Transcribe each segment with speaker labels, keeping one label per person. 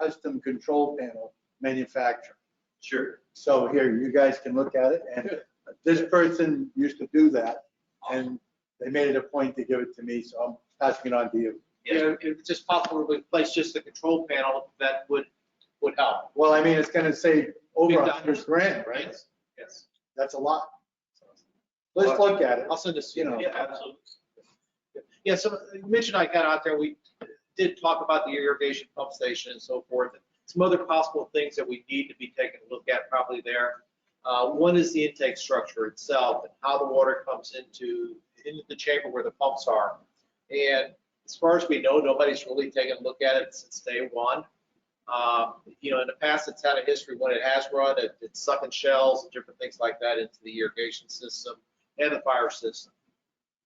Speaker 1: custom control panel manufacturer.
Speaker 2: Sure.
Speaker 1: So here, you guys can look at it, and this person used to do that, and they made it a point to give it to me, so I'm passing it on to you.
Speaker 2: Yeah.
Speaker 3: You know, if it's just possible to replace just the control panel, that would, would help,
Speaker 1: Well, I mean, it's gonna save over a
Speaker 3: Big
Speaker 1: hundred grand, right?
Speaker 3: right? Yes.
Speaker 1: That's a lot. Let's look at it.
Speaker 3: I'll send this, you know.
Speaker 1: Yeah,
Speaker 2: absolutely.
Speaker 3: Yeah, so Mitch and I got out there, we did talk about the irrigation pump station and so forth. Some other possible things that we need to be taking a look at probably there. Uh, One is the intake structure itself and how the water comes into, into the chamber where the pumps are. And as far as we know, nobody's really taken a look at it since day one. Um, You know, in the past, it's had a history when it has run, it- it's sucking shells and different things like that into the irrigation system and the fire system.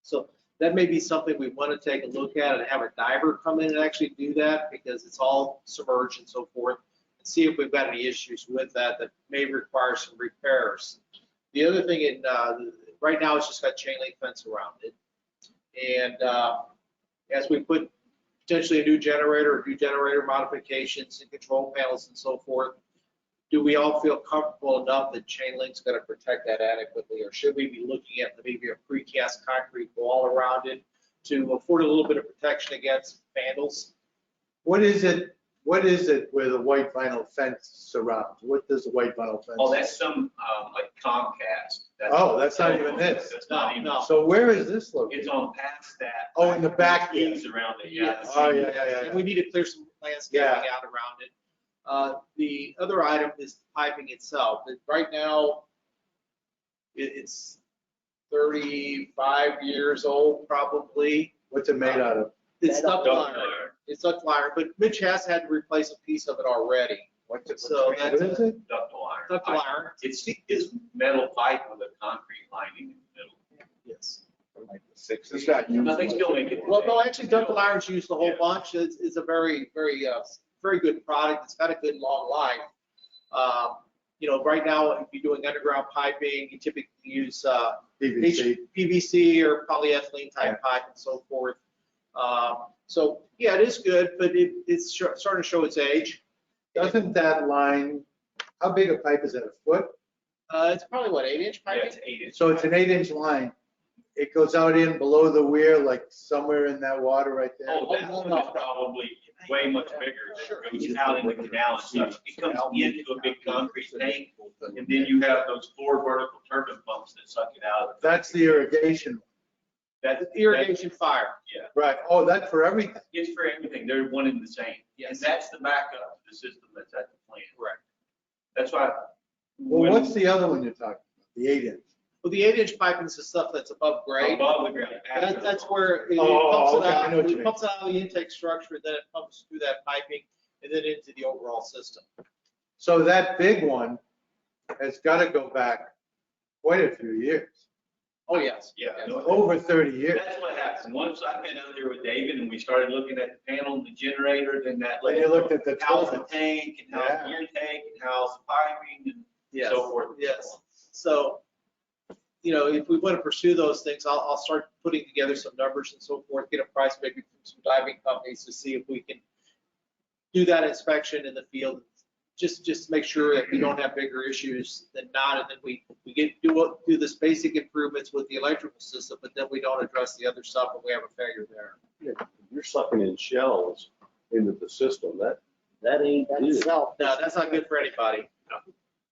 Speaker 3: So that may be something we want to take a look at and have a diver come in and actually do that because it's all submerged and so forth. and See if we've got any issues with that that may require some repairs. The other thing in, uh, right now it's just got chain link fence around it. And, uh, as we put potentially a new generator, or new generator modifications and control panels and so forth, do we all feel comfortable enough that chain link's gonna protect that adequately? Or should we be looking at maybe a precast concrete wall around it to afford a little bit of protection against vandals?
Speaker 1: What is it, what is it with a white vinyl fence surrounds? What does a white vinyl fence?
Speaker 2: Oh, that's some, um, like Comcast. That's-
Speaker 1: Oh, that's not even this.
Speaker 2: That's not even,
Speaker 3: No.
Speaker 1: So where is this
Speaker 2: it's
Speaker 1: located?
Speaker 2: on past that.
Speaker 1: Oh, in the back, yeah.
Speaker 2: Trees around it, yeah.
Speaker 3: Yes.
Speaker 1: Oh, yeah, yeah, yeah,
Speaker 3: And we need to clear some landscaping
Speaker 1: Yeah.
Speaker 3: out around it. Uh, The other item is piping itself. It- Right now, it- it's 35 years old probably.
Speaker 1: What's it made out of?
Speaker 3: It's duct
Speaker 2: Don't
Speaker 3: iron.
Speaker 2: know.
Speaker 3: It's duct iron, but Mitch has had to replace a piece of it already.
Speaker 1: What's it?
Speaker 3: So
Speaker 1: What
Speaker 3: that's-
Speaker 1: is it?
Speaker 2: Duct wire.
Speaker 3: Duct iron.
Speaker 2: It's, it's metal pipe with a concrete lining in the middle.
Speaker 3: Yes.
Speaker 1: It's not used
Speaker 2: Nothing's
Speaker 1: much.
Speaker 2: still making.
Speaker 3: Mm-hmm. Well, no, actually, Dunkin' Irons used a whole
Speaker 2: Yeah.
Speaker 3: bunch. It's, it's a very, very, uh, very good product. It's got a good long life. Uh, You know, right now, if you're doing underground piping, you typically use, uh,
Speaker 1: PVC.
Speaker 3: PVC or polyethylene type pipe and so forth. Um, So, yeah, it is good, but it, it's sh- starting to show its age.
Speaker 1: Doesn't that line, how big a pipe is it, a foot?
Speaker 3: Uh, it's probably what, eight inch
Speaker 2: Yeah,
Speaker 3: piping?
Speaker 2: it's eight inch.
Speaker 1: So it's an eight inch line. It goes out in below the weir, like somewhere in that water right there.
Speaker 2: Oh, that one is probably way much bigger.
Speaker 3: Sure.
Speaker 2: It goes out in the canal and stuff. It comes into a big concrete tank. And then you have those four vertical turbine pumps that suck it out.
Speaker 1: That's the irrigation,
Speaker 2: That's
Speaker 3: Irrigation fire.
Speaker 2: Yeah,
Speaker 1: right? Oh, that's for everything.
Speaker 2: it's for everything. They're one and the same. And
Speaker 3: Yes.
Speaker 2: that's the backup, to the system that's at the plant.
Speaker 3: Correct.
Speaker 2: That's why.
Speaker 1: Well, what's the other one you're talking about? The eight inch?
Speaker 3: Well, the eight inch piping is the stuff that's above grade.
Speaker 2: Above the ground. after
Speaker 3: That,
Speaker 2: the
Speaker 3: that's
Speaker 2: pump.
Speaker 3: where it
Speaker 1: Oh,
Speaker 3: pumps it
Speaker 1: okay, I know what
Speaker 3: out,
Speaker 1: you
Speaker 3: it
Speaker 1: mean.
Speaker 3: pumps out of the intake structure, then it pumps through that piping and then into the overall system.
Speaker 1: So that big one has got to go back quite a few years,
Speaker 3: Oh, yes.
Speaker 2: Yeah.
Speaker 3: yes.
Speaker 2: no,
Speaker 1: over 30 years.
Speaker 2: That's what happened. Once I've been out there with David and we started looking at the panel and the generator, then that.
Speaker 1: When you looked at the
Speaker 2: How the
Speaker 1: toilets.
Speaker 2: tank and how
Speaker 1: Yeah.
Speaker 2: the air tank and how the piping and
Speaker 3: Yes.
Speaker 2: so forth. and so
Speaker 3: Yes.
Speaker 2: on.
Speaker 3: So, you know, if we want to pursue those things, I'll, I'll start putting together some numbers and so forth, get a price maybe from some diving companies to see if we can do that inspection in the field, just, just to make sure that we don't have bigger issues than not, and then we, we get, do, what- do this basic improvements with the electrical system, but then we don't address the other stuff and we have a failure there.
Speaker 4: You're sucking in shells into the system. That, that ain't good.
Speaker 3: No, that's not good for anybody.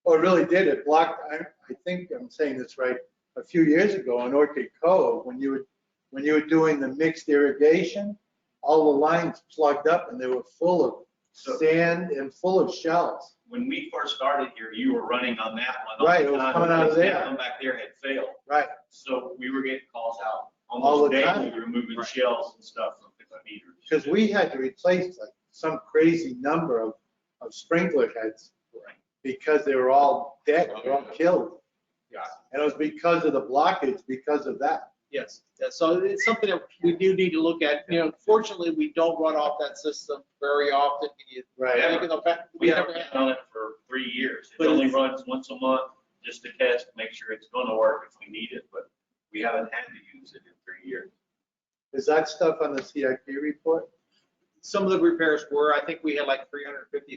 Speaker 1: Well, it really did. It blocked, I, I think I'm saying this right, a few years ago on Orchid Cove, when you were, when you were doing the mixed irrigation, all the lines plugged up and they were full of
Speaker 2: So-
Speaker 1: sand and full of shells.
Speaker 2: When we first started here, you were running on that one. all
Speaker 1: Right,
Speaker 2: the
Speaker 1: it was
Speaker 2: time,
Speaker 1: coming out of
Speaker 2: because that
Speaker 1: there.
Speaker 2: One back there had failed.
Speaker 1: Right.
Speaker 2: So we were getting calls out
Speaker 1: All
Speaker 2: almost
Speaker 1: the
Speaker 2: daily.
Speaker 1: time.
Speaker 2: We were moving
Speaker 3: Right.
Speaker 2: shells and stuff from different meters.
Speaker 1: Because we had to replace like some crazy number of, of sprinkler heads
Speaker 2: Right.
Speaker 1: because they were all dead, they were all killed.
Speaker 3: Yeah.
Speaker 1: And it was because of the blockage, because of that.
Speaker 3: Yes, yeah, so it's something that we do need to look at. You know, fortunately, we don't run off that system very often. You-
Speaker 2: Right.
Speaker 3: Like in the fact-
Speaker 2: We
Speaker 3: We uh,
Speaker 2: haven't
Speaker 3: never
Speaker 2: been
Speaker 3: had,
Speaker 2: on it for three years. It
Speaker 3: But
Speaker 2: only
Speaker 3: it's-
Speaker 2: runs once a month, just to test, make sure it's gonna work if we need it, but we haven't had to use it in three years.
Speaker 1: Is that stuff on the CIP report?
Speaker 3: some of the repairs were, I think we had like three hundred fifty